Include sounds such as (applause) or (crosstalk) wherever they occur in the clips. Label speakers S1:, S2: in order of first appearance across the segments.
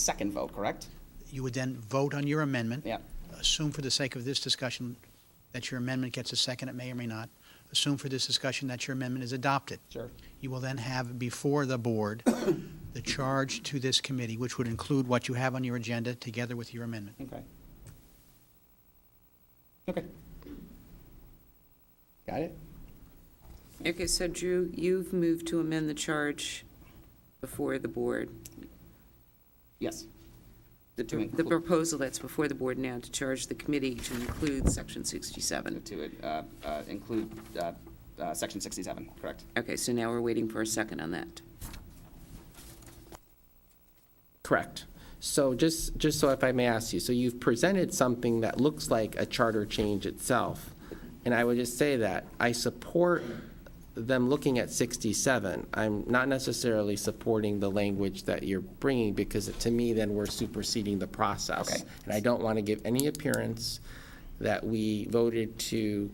S1: Second vote, correct?
S2: You would then vote on your amendment.
S1: Yeah.
S2: Assume for the sake of this discussion that your amendment gets a second, it may or may not. Assume for this discussion that your amendment is adopted.
S1: Sure.
S2: You will then have before the board (coughs) the charge to this committee, which would include what you have on your agenda together with your amendment.
S1: Okay. Okay. Got it?
S3: Okay, so Drew, you've moved to amend the charge before the board,
S1: Yes.
S3: the
S1: To
S3: the
S1: include-
S3: proposal that's before the board now to charge the committee to include section 67.
S1: To uh, uh, include uh, uh, section 67, correct?
S3: Okay, so now we're waiting for a second on that.
S4: Correct. So just, just so if I may ask you, so you've presented something that looks like a charter change itself. And I would just say that I support them looking at 67. I'm not necessarily supporting the language that you're bringing because to me, then we're superseding the process.
S1: Okay.
S4: And I don't want to give any appearance that we voted to,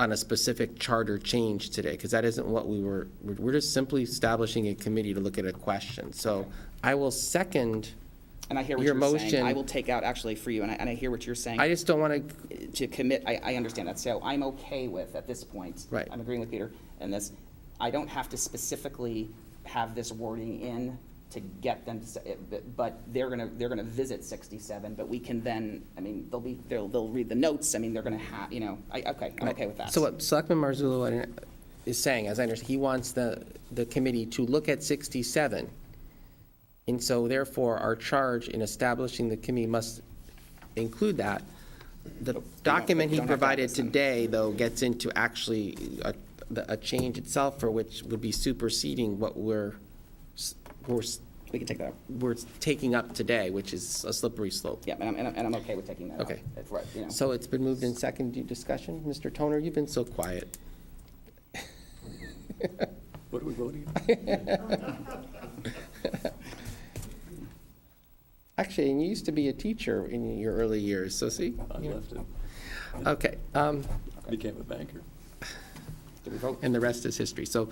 S4: on a specific charter change today, because that isn't what we were, we're we're just simply establishing a committee to look at a question. So I will second,
S1: And I hear what
S4: Your
S1: you're saying. I
S4: motion-
S1: will take out actually for you, and I, and I hear what you're saying.
S4: I just don't want to,
S1: to commit, I, I understand that, so I'm okay with, at this point.
S4: Right.
S1: I'm agreeing with Peter, and this, I don't have to specifically have this wording in to get them to say, it, but- but they're gonna, they're gonna visit sixty-seven, but we can then, I mean, they'll be, they'll, they'll read the notes, I mean, they're gonna have, you know, I, okay, I'm okay with that.
S4: so what Selectman Marzullo is saying, as I understand, he wants the, the committee to look at 67. And so therefore, our charge in establishing the committee must include that. The document
S1: we
S4: he
S1: don't have that
S4: provided
S1: this time.
S4: today, though, gets into actually a, the- a change itself for which would be superseding what we're, s- we're, s-
S1: We can take that out.
S4: we're taking up today, which is a slippery slope.
S1: Yeah, and I'm, and I'm, and I'm okay with taking that out.
S4: Okay.
S1: If we're- you know.
S4: So it's been moved in second Do discussion. Mr. Toner, you've been so quiet.
S5: What are we voting on?
S4: (laughs) Actually, and you used to be a teacher in your early years, so see?
S5: I
S4: you know.
S5: left it,
S4: Okay, um,
S5: became a banker.
S1: Do we vote?
S4: and the rest is history. So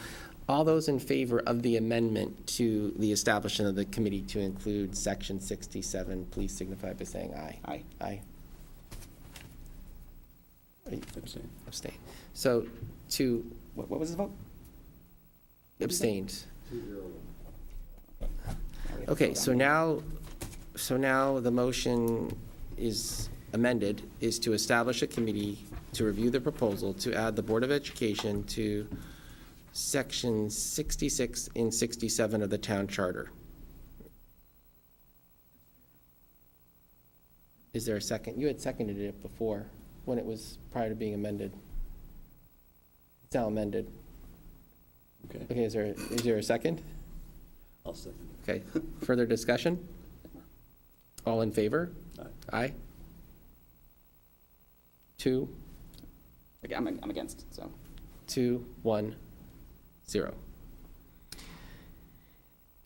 S4: all those in favor of the amendment to the establishment of the committee to include section 67, please signify by saying aye.
S1: Aye.
S4: Aye.
S5: Abstain.
S4: Abstain. So to
S1: What, what was the vote?
S4: abstained.
S1: Now we have to
S4: Okay,
S1: vote
S4: so
S1: on it.
S4: now, so now the motion is amended, is to establish a committee to review the proposal to add the Board of Education to section 66 and 67 of the town charter. Is there a second? You had seconded it before, when it was prior to being amended. It's now amended.
S5: Okay,
S4: Okay, is there, is there a second?
S5: I'll second it.
S4: Okay, further discussion? All in favor?
S5: Aye.
S4: Aye? Two,
S1: Again, I'm, I'm against, so.
S4: two, one, zero.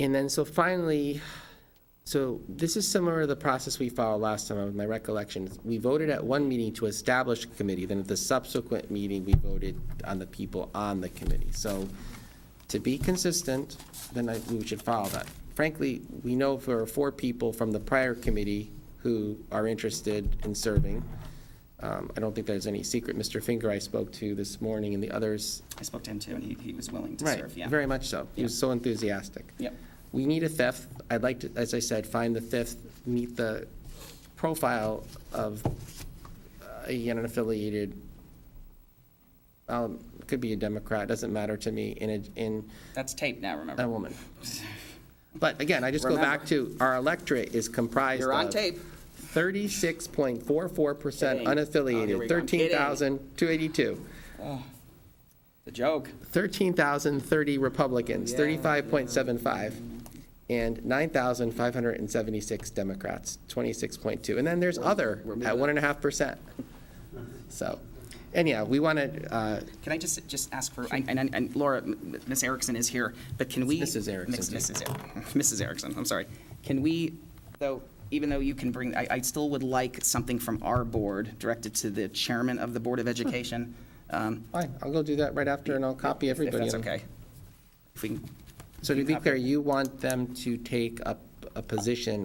S4: And then, so finally, so this is similar to the process we followed last time, with my recollection. We voted at one meeting to establish a committee, then at the subsequent meeting, we voted on the people on the committee. So to be consistent, then I, we should follow that. Frankly, we know there are four people from the prior committee who are interested in serving. Um, I don't think there's any secret. Mr. Finger I spoke to this morning and the others
S1: I spoke to him too, and he, he was willing to
S4: Right,
S1: serve, yeah.
S4: Very much so. He was so enthusiastic.
S1: Yep.
S4: We need a fifth. I'd like to, as I said, find the fifth, meet the profile of uh, an unaffiliated, um, could be a Democrat, doesn't matter to me, in a, in
S1: That's taped now,
S4: a
S1: remember?
S4: woman. But again, I just go back to, our electorate is comprised
S1: You're on
S4: of
S1: tape.
S4: 36.44%
S1: Kidding. Oh, here
S4: unaffiliated,
S1: we go. I'm kidding.
S4: 13,282.
S1: The joke.
S4: 13,030 Republicans,
S1: Yeah,
S4: 35.75, and 9,576 Democrats, 26.2. And then there's other at 1.5%. So, anyhow, we uh, want to,
S1: Can I just, just ask for, and, and- and Laura, M- Ms. Erickson is here, but can we?
S4: It's Mrs. Erickson,
S1: Mix-
S4: too.
S1: Mrs. (laughs) Er- Mrs. Erickson, I'm sorry. Can we, though, even though you can bring, I, I still would like something from our board directed to the chairman of the Board of Education. um,
S4: fine, I'll go do that right after, and I'll copy
S1: If
S4: everybody.
S1: that's
S4: and-
S1: okay. If we can,
S4: So to be clear, you want them to take up a position